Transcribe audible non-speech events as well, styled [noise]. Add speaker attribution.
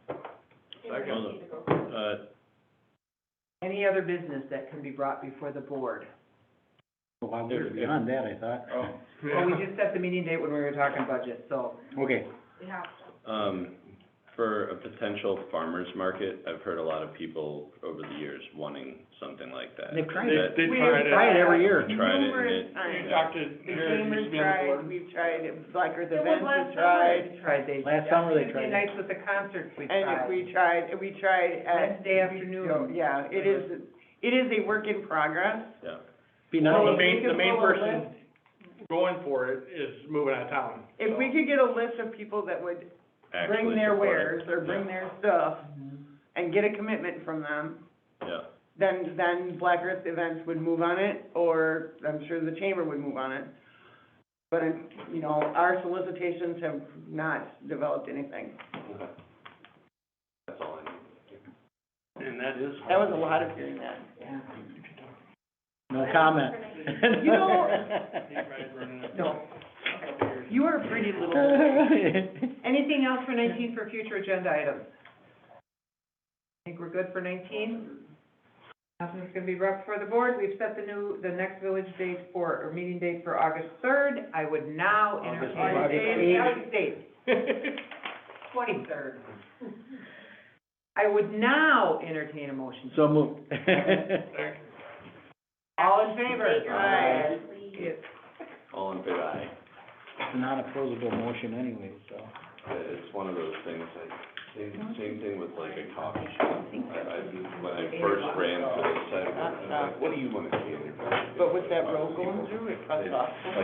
Speaker 1: Second.
Speaker 2: Uh,
Speaker 3: Any other business that can be brought before the board?
Speaker 4: Well, we were beyond that, I thought.
Speaker 1: Oh.
Speaker 3: Well, we just set the meeting date when we were talking budget, so.
Speaker 4: Okay,
Speaker 2: Um, for a potential farmer's market, I've heard a lot of people over the years wanting something like that.
Speaker 4: they've tried it,
Speaker 2: That-
Speaker 1: They, they
Speaker 5: We
Speaker 1: tried it.
Speaker 4: try it every year.
Speaker 2: They tried it, and it-
Speaker 1: We
Speaker 5: Numerous times.
Speaker 2: yeah.
Speaker 1: talked to
Speaker 5: The
Speaker 1: Jared, who used to be
Speaker 5: gamers
Speaker 1: on the
Speaker 5: tried,
Speaker 1: board.
Speaker 5: we've tried, it. Blacker the
Speaker 3: It was
Speaker 5: Vents
Speaker 3: last
Speaker 5: has tried,
Speaker 3: summer. Tried, they.
Speaker 4: last summer they
Speaker 3: Tuesday
Speaker 4: tried it.
Speaker 3: nights with the concerts we
Speaker 5: and
Speaker 3: tried.
Speaker 5: if we tried, we tried at.
Speaker 3: Wednesday afternoon.
Speaker 5: Yeah, it is, it is a work in progress.
Speaker 2: yeah.
Speaker 4: Be
Speaker 1: Well,
Speaker 4: nice,
Speaker 1: the main, the main
Speaker 5: Well, if we could
Speaker 1: person going for it is moving out of town.
Speaker 5: If
Speaker 1: so.
Speaker 5: we could get a list of people that would
Speaker 2: Actually
Speaker 5: bring their
Speaker 2: support it.
Speaker 5: wares or bring
Speaker 2: Yeah.
Speaker 5: their stuff
Speaker 3: Mhm.
Speaker 5: and get a commitment from them,
Speaker 2: Yeah,
Speaker 5: then, then Black Earth Events would move on it, or I'm sure the chamber would move on it. But, you know, our solicitations have not developed anything.
Speaker 2: that's all I need.
Speaker 1: And that is.
Speaker 5: That was a lot of hearing that.
Speaker 3: Yeah.
Speaker 4: no comment.
Speaker 5: You know-
Speaker 1: [laughs]
Speaker 3: No. You are a pretty
Speaker 4: [laughs]
Speaker 3: little. Anything else for nineteen for future agenda items? Think we're good for nineteen? Nothing's gonna be brought before the board. We've set the new, the next village date for, or meeting date for August third. I would now entertain.
Speaker 4: August eighth.
Speaker 3: August eighth.
Speaker 1: [laughs]
Speaker 3: Twenty-third. I would now entertain a motion.
Speaker 4: [laughs] So moved.
Speaker 3: All in favor?
Speaker 5: Aye.
Speaker 3: Yes.
Speaker 2: All in favor, aye.
Speaker 4: Non-opposable motion anyway, so.
Speaker 2: Uh, It's one of those things, I, same, same thing with like a coffee shop. I, I, when I first ran for the site, I was like, what do you wanna see in your coffee?
Speaker 5: But with that road going through, it cuts off.